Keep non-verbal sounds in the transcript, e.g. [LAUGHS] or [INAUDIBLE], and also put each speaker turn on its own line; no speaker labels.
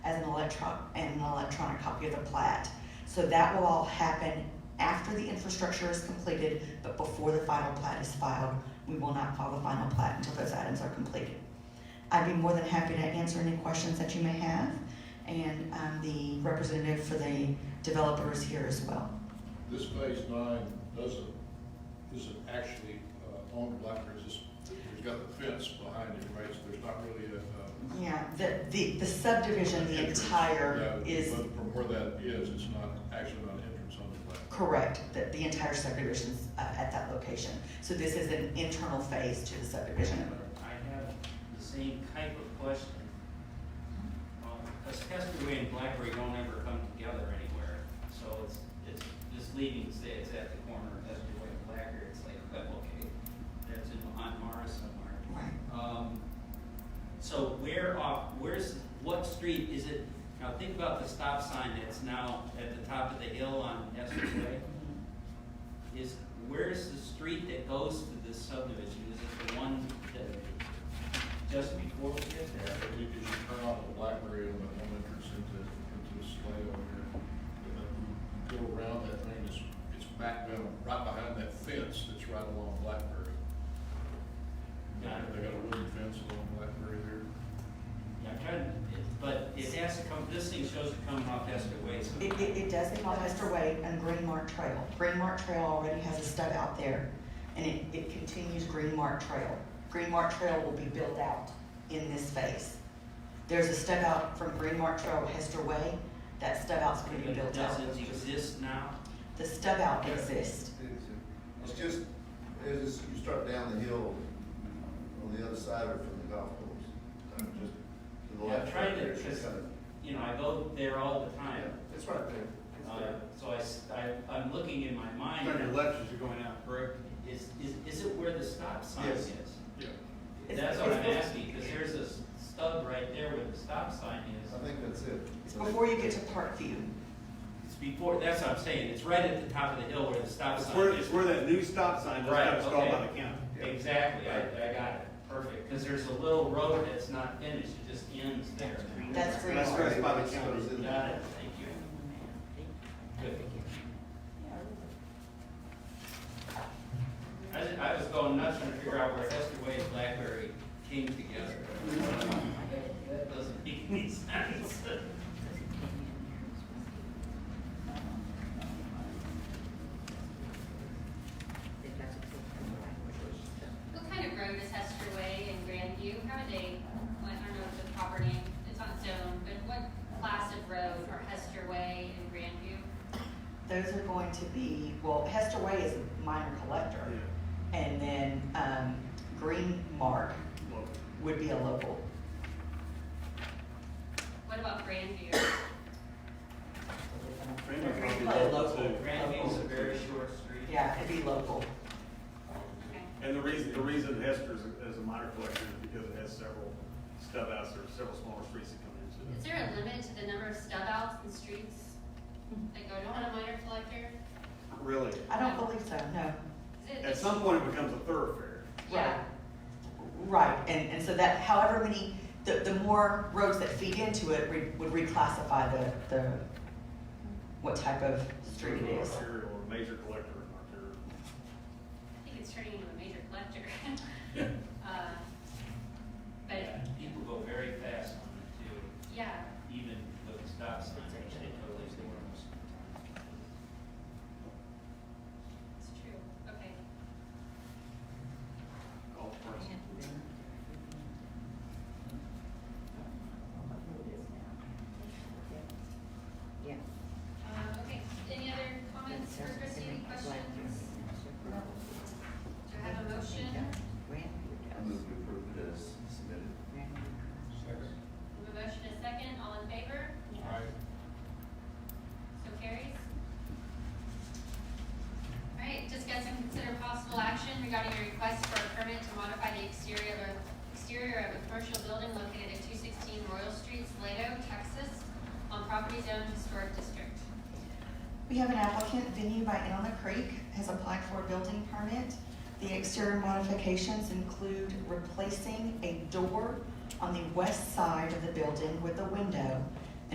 on a copy of the plat. So that will all happen after the infrastructure is completed, but before the final plat is filed. We will not file the final plat until those items are completed. I'd be more than happy to answer any questions that you may have, and um, the representative for the developer is here as well.
This phase nine doesn't, isn't actually uh, on Blackbird, it's, it's got the fence behind it, right? So there's not really a. uh,
Yeah, the, the the subdivision, the
entrance.
entire
Yeah,
is
But from where that is, it's not, actually not an entrance on the Blackbird.
correct, that the entire subdivision's uh, at that location. So this is an internal phase to the subdivision.
I have the same type of question. Because Casperway and Blackberry don't ever come together anywhere, so it's, it's misleading to say it's at the corner of Casperway and Blackberry, it's like, well, okay, that's in, on Mars somewhere.
Right.
Um, so where off, where's, what street is it, now think about the stop sign that's now at the top of the hill on Estes Way. Is, where's the street that goes to this subdivision, is it the one that, just before we get there?
If you if you turn off the Blackberry and the one entrance into, into the slay over here, and then you go around that thing, it's, it's back down, right behind that fence that's right along Blackberry.
Got it.
They got a wooden fence along Blackberry there.
Yeah, I'm trying, it- but it has to come, this thing shows it coming off Estes Way, so.
It, it, it does involve Hester Way and Green Mark Trail. Green Mark Trail already has a stub out there, and it, it continues Green Mark Trail. Green Mark Trail will be built out in this phase. There's a stub out from Green Mark Trail to Hester Way, that stub out's gonna be
But it
built out.
doesn't exist now,
The stub out exists,
It's just, it's just, you start down the hill on the other side or from the golf course, kind of just to the
Yeah,
left.
trying
right
to-
there, it's just
just-
kind
you know, I go there all the
of- yeah,
time.
It's right there. It's
Uh,
there.
So I s- I, am looking in my mind.
are going out, correct?
Is, is, is it where the stop sign
Yes.
is?
Yeah.
It's-
That's what I'm
it's-
asking, because there's a s- stub right there where the stop sign is.
I think that's it.
it's before you get to Parkview.
It's before, that's what I'm saying, it's right at the top of the hill where the stop
It's
sign
where,
is.
it's where that new stop sign just
Right,
got installed
okay.
by the county.
Yeah.
Exactly, I, I got it, perfect, because there's a little road that's not finished, it just ends there.
That's Green
That's
Mark.
right. by the
It's
county.
in
Got
there.
it, thank you. Good. I, was- I was going nuts trying to figure out where Hester Way and Blackberry came together. That doesn't make any sense.
[LAUGHS]
What kind of road is Hester Way and Grandview? How are they, I don't know the proper name, it's on its own, but what class of road are Hester Way and Grandview?
Those are going to be, well, Hester Way is a minor collector. And then, um, Green Mark would be a local.
What about Grandview? [COUGHS]
Freeman
Pretty
probably
close.
loves it.
Grandview's a very short street.
Yeah, it'd be local.
Okay.
And the reason, the reason Hester's is a minor collector is because it has several stub outs, there are several smaller streets that come into
Is
it.
there a limit to the number of stub outs and streets that go on a minor collector?
Really.
I don't believe so, no.
Is it-
At some point, it becomes a thoroughfare.
Yeah,
Right, and, and so that, however many, the, the more roads that feed into it re- would reclassify the, the, what type of street it is.
Arterial or major collector and
I think it's turning into a major collector. [LAUGHS] Uh,
Yeah,
But,
People go very fast on it too,
yeah,
even with the stop sign, which they totally ignore most of the time.
it's true, okay.
golf courses.
Yeah.
Uh, okay, any other comments for Christie, any questions? Do I have a motion?
I move to approve it as submitted.
We have a motion and a second, all in favor? So carries. All right, discuss and consider possible action regarding a request for a permit to modify the exterior of, exterior of a commercial building located at two sixteen Royal Street, Salado, Texas, on property zone historic district.
We have an applicant, venue by In on the Creek, has applied for a building permit. The exterior modifications include replacing a door on the west side of the building with a window